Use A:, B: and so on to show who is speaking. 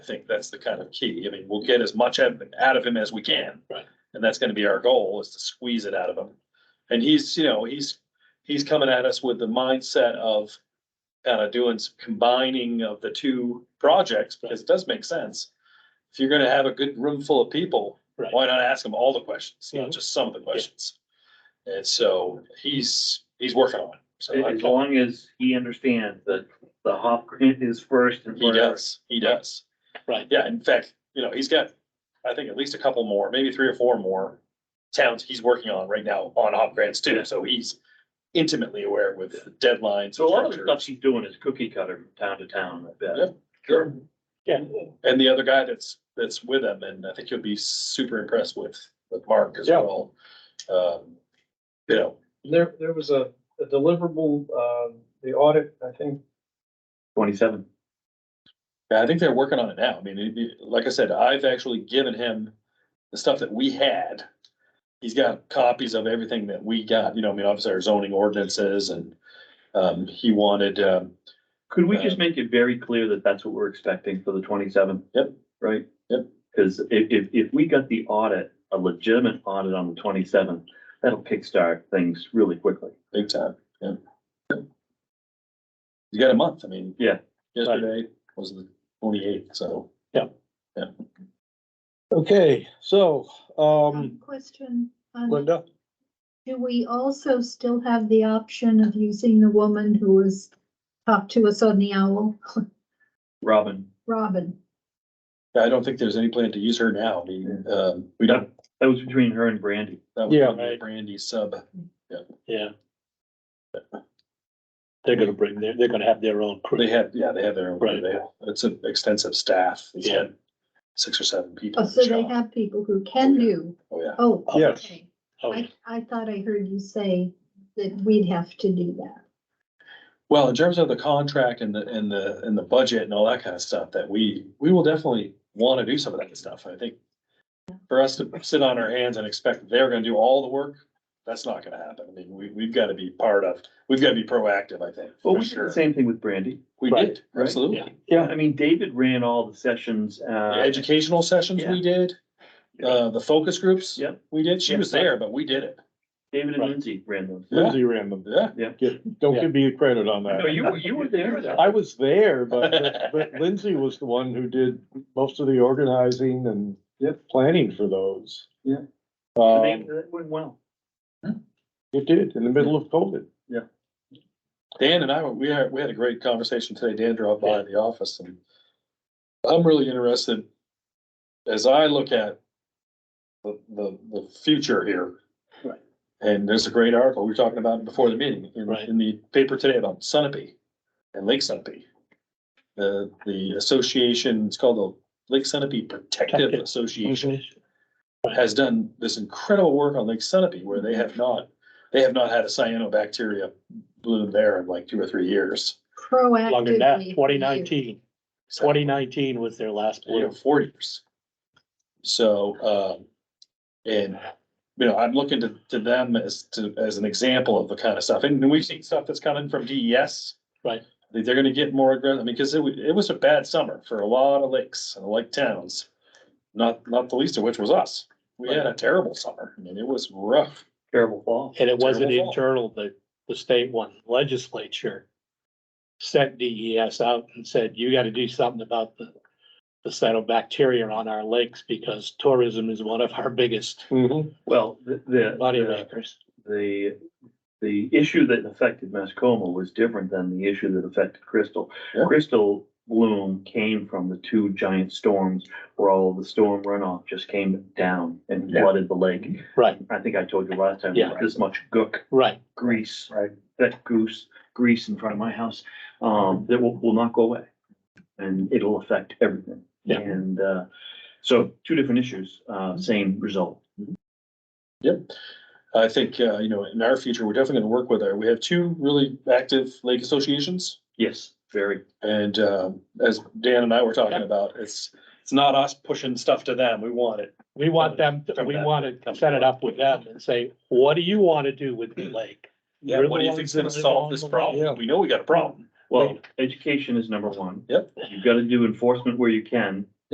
A: I think that's the kind of key. I mean, we'll get as much out out of him as we can.
B: Right.
A: And that's gonna be our goal is to squeeze it out of him. And he's, you know, he's, he's coming at us with the mindset of kind of doing some combining of the two projects, because it does make sense. If you're gonna have a good room full of people,
B: Right.
A: why not ask them all the questions, not
B: Mhm.
A: just some of the questions? And so he's, he's working on it. So I
C: As
A: told
C: long as he understands that the HOP grant is first and
A: him, he
C: forever.
A: does, he does.
B: Right,
A: Yeah, in fact, you know, he's got, I think, at least a couple more, maybe three or four more towns he's working on right now on hop grants too, so he's intimately aware with deadlines.
C: So a lot of the
A: structure.
C: stuff she's doing is cookie cutter from town to town, I bet.
A: Yep. Sure.
B: yeah,
A: And the other guy that's, that's with him, and I think you'll be super impressed with, with Mark as
B: Yeah.
A: well. Um, You know,
D: There, there was a a deliverable, um, the audit, I think,
C: Twenty-seven.
A: Yeah, I think they're working on it now. I mean, it- it- like I said, I've actually given him the stuff that we had. He's got copies of everything that we got, you know, I mean, obviously our zoning ordinances and, um, he wanted, um,
C: Could we just make it very clear that that's what we're expecting for the twenty-seven?
A: Yep.
C: Right?
A: Yep.
C: Cause if, if, if we got the audit, a legitimate audit on the twenty-seven, that'll kickstart things really quickly.
A: big time, yeah. You got a month, I mean.
C: Yeah.
A: Yesterday was the twenty-eighth, so.
B: okay, so, um,
E: Um, Question, um,
B: Linda,
E: do we also still have the option of using the woman who was talked to us on the owl,
C: Robin,
E: Robin?
A: I don't think there's any plan to use her now. I mean, um, we don't.
C: that was between her and Brandy.
A: that was
B: Yeah.
A: a Brandy sub.
B: yeah. They're gonna bring their, they're gonna have their own
A: They
B: crew,
A: have, yeah, they have their own,
B: Right.
A: they, it's an extensive staff. He's
B: Yeah.
A: had Six or seven people.
E: Oh,
A: in
E: so
A: the
E: they
A: shop.
E: have people who can do,
A: Oh, yeah.
E: oh,
B: Yes.
E: okay.
B: oh,
E: I, I thought I heard you say that we'd have to do that.
A: Well, in terms of the contract and the, and the, and the budget and all that kind of stuff, that we, we will definitely want to do some of that stuff, I think. For us to sit on our hands and expect they're gonna do all the work, that's not gonna happen. I mean, we, we've got to be part of, we've got to be proactive, I think. for
C: Well, we did the
A: sure.
C: same thing with Brandy.
A: We
B: Right,
A: did,
C: right,
A: absolutely.
B: yeah,
C: I mean, David ran all the sessions,
A: The
C: uh,
A: educational sessions we did, uh, the focus groups.
C: Yep.
A: We did, she
C: Yep.
A: was there, but we did it.
C: David and
B: Right.
C: Lindsay ran those.
F: Lindsay ran them.
A: Yeah.
F: Get- Don't give me credit on
C: No,
F: that.
C: you, were- you were there.
F: I was there, but, but Lindsay was the one who did most of the organizing and planning for those.
C: Yeah.
F: Um,
C: They- That went well.
F: it did, in the middle of COVID.
A: Dan and I, we had, we had a great conversation today. Dan dropped by the office and I'm really interested, as I look at the, the, the future here.
B: Right.
A: And there's a great article, we were talking about it before the meeting, in,
B: Right.
A: in the paper today about Sunapee and Lake Sunapee. The, the association, it's called the Lake Sunapee Protective
B: Protective.
A: Association has done this incredible work on Lake Sunapee where they have not, they have not had a cyanobacteria bloom there in like two or three years.
E: Proactively.
B: longer than that,
E: we
B: twenty nineteen,
A: So,
B: twenty nineteen was their last
A: You know,
B: blue.
A: four years. So, um, and, you know, I'm looking to, to them as to, as an example of the kind of stuff. And we've seen stuff that's coming from DES.
B: Right.
A: I think They're gonna get more aggressive, because it, wa- it was a bad summer for a lot of lakes and lake towns. Not, not the least of which was us. We had a terrible summer. I mean, it was rough.
C: Terrible fall.
B: And it wasn't
A: Terrible.
B: internal, the, the state one legislature sent DES out and said, you gotta do something about the, the cyanobacteria on our lakes because tourism is one of our biggest
C: Well, the, the-
B: money
C: the,
B: makers.
C: the, the issue that affected Mascoma was different than the issue that affected Crystal.
A: Yeah.
C: Crystal bloom came from the two giant storms where all the storm runoff just came down and
A: Yeah.
C: flooded the lake.
B: Right,
C: I think I told you last time,
B: Yeah.
C: this much gook
B: right.
C: grease.
A: Right.
C: That goose grease in front of my house, um, that will, will not go away. And it'll affect everything.
B: Yeah.
C: And, uh, so two different issues, uh, same result.
A: I think, uh, you know, in our future, we're definitely gonna work with our, we have two really active lake associations.
C: Yes, very.
A: And, um, as Dan and I were talking about, it's, it's not us pushing stuff to them. We want it.
B: We want them, to-
A: From
B: we
A: that,
B: want to set it up with them and say, what do you want to do with the lake?
A: Yeah,
B: You're
A: what
B: the
A: do you
B: ones
A: think's
B: that
A: gonna
B: live
A: solve
B: on
A: this
B: the lake.
A: problem? We know we got a problem.
C: Well, education is number one.
A: Yep.
C: You've got to do enforcement where you can,